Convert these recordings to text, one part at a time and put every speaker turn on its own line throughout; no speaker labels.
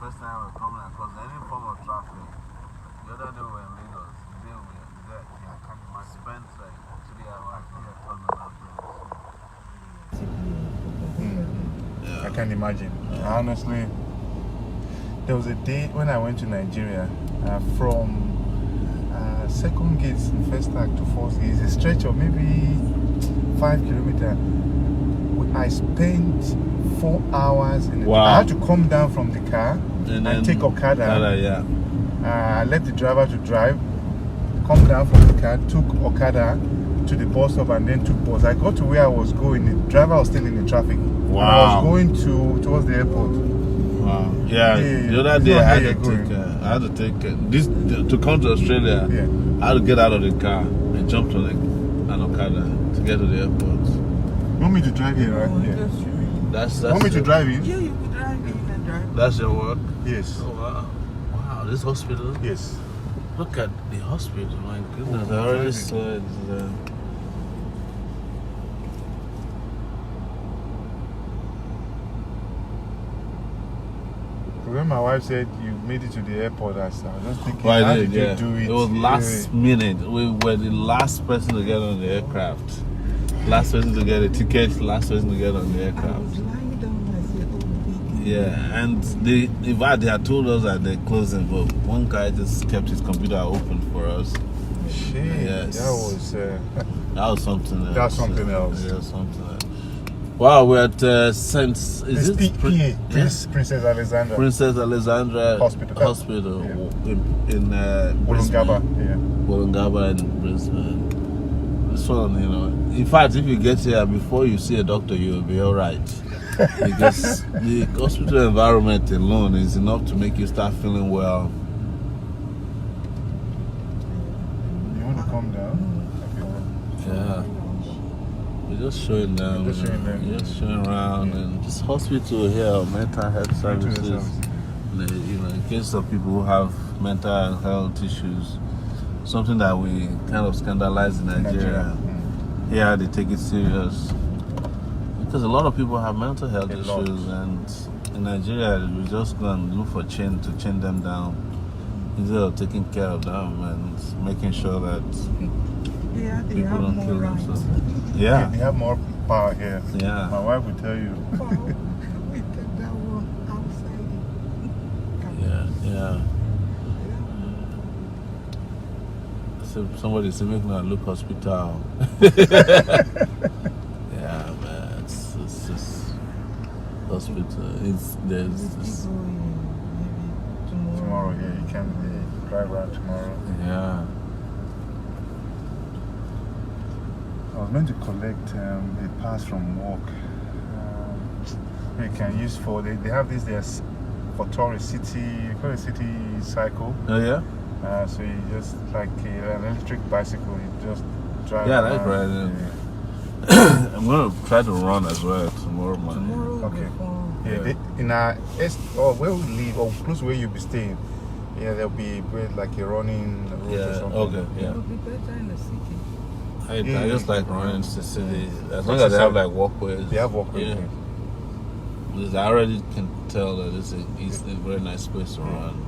first time I'm coming across any form of traffic. The other day we were in Lagos, they were there. I can't imagine. Spent like three hours here talking about
I can't imagine. Honestly, there was a day when I went to Nigeria uh, from uh, second gate, in first act to fourth gate, it's a stretch of maybe five kilometer. We- I spent four hours in the I
Wow.
had to come down from the car and, take Okada.
yeah.
Uh, I let the driver to drive, come down from the car, took Okada to the bus stop and then took bus. I got to where I was going. The driver was still in the traffic. And
Wow.
I was going to towards the airport.
Wow. Yeah.
Yeah,
The other
it's
day
not
I
where
had to
you're
take. Uh, I had to take uh, this to come to Australia.
Yeah.
I had to get out of the car and jump to like an Okada to get to the airport.
Want me to drive here, right? Yeah.
That's that's.
Want me to
your-
drive in?
Yeah, you can drive. You can drive.
That's your work.
Yes.
Oh, wow. Wow. This hospital.
Yes.
Look at the hospital. My goodness.
Oh,
I already
driving.
saw it. uh, there.
When my wife said you made it to the airport, I said, I was just thinking,
Well,
how
I
did
did, yeah.
you do it?
It was
Yeah.
last minute. We were the last person to get on the aircraft. Last person to get a ticket. Last person to get on the
I
aircraft.
was lying down. I said, oh, big.
Yeah, and they, in fact, they had told us that they're closing, but one guy just kept his computer open for us.
Shit,
Yes.
that was. Uh,
That was something else.
That's something else.
Yeah, something else. Wow, we're at uh, Saint. Is
it's
it
PA,
Pri-
Prince, Princess Alexandra.
Princess Alexandra
Hospital.
Hospital in, in uh,
Wollongaba.
Brisbane.
Yeah.
Wollongabba in Brisbane. This one, you know. In fact, if you get here before you see a doctor, you'll be all right. because the hospital environment alone is enough to make you start feeling well.
You want to come down?
Yeah. We're just showing them.
Just
you know,
showing them.
we're just showing around.
Yeah.
And this hospital here, mental health
Mental health
services,
services.
the- uh, you know, in case of people who have mental health issues, something that we kind of scandalize in
Okay.
Nigeria.
Mm.
Here they take it serious. Because a lot of people have mental health
A
issues,
lot.
and in Nigeria, we just go and look for chain to chain them down instead of taking care of them and making sure that,
Yeah, they
People
have
don't
more
kill
rights.
themselves.
They-
yeah,
They have more power here.
yeah.
My wife will tell you.
Wow, we take that one outside.
Yeah, yeah. So somebody said, make me a look hospital. yeah, man. It's, it's just hospital. It's
We
there's.
keep
It's,
going maybe tomorrow.
Tomorrow, yeah, you can uh, drive around tomorrow.
yeah.
I was meant to collect um, a pass from work. Um, they can use for, they, they have this there s- for tourist city, you call it city cycle.
Oh yeah.
Uh, so you just like uh, an electric bicycle, you just drive
Yeah, that's
around.
right, I'm gonna try to run as well tomorrow morning.
Tomorrow will
Okay.
be fun.
Yeah,
Yeah.
They, in our est- or where we live or close where you'll be staying, yeah, there'll be where, like a running route
Yeah.
or something.
Okay.
It
Yeah.
will be better in the city.
I,
Yeah,
I
yeah.
just like running to the city as long as they have like walkways.
They have walkway.
Yeah.
thing.
Because I already can tell that it's a, it's a very nice place to run.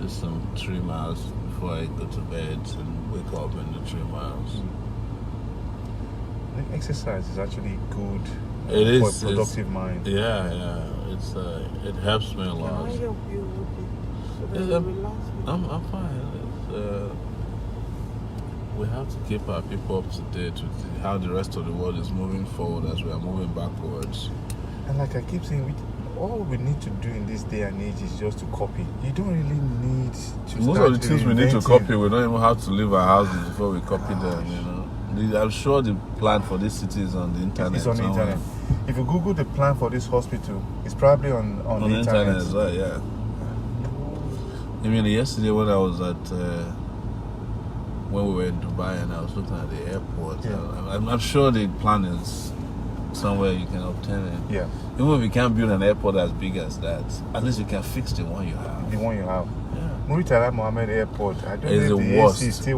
Just some three miles before I go to bed and wake up in the three miles.
Like, Exercise is actually good uh,
It
for
is, it's-
a productive mind.
Yeah, yeah, it's uh, it helps me a
Can
lot.
I help you with it? So that
Yes,
you
I'm-
relax with
I'm I'm fine. It's, uh, we have to keep our people up to date with how the rest of the world is moving forward as we are moving backwards.
And like I keep saying, we, all we need to do in this day and age is just to copy. You don't really need to.
Most
start
of the things we need to
reinventing.
copy, we don't even have to leave our houses before we copy them, you know. The- I'm sure the plan for this city is on the internet.
It's on the
somewhere.
internet. If you Google the plan for this hospital, it's probably on on,
On the internet, as well, yeah. I mean, yesterday when I was at, uh, when we were in Dubai and I was looking at the airport,
Yeah.
I, I'm, I'm sure the plan is somewhere you can obtain it.
Yeah,
Even if you can't build an airport as big as that, at least you can fix the one you have.
the one you have.
Yeah.
Muritala Mohammed Airport. I don't
It's
know
the
if the
worst.
AC is still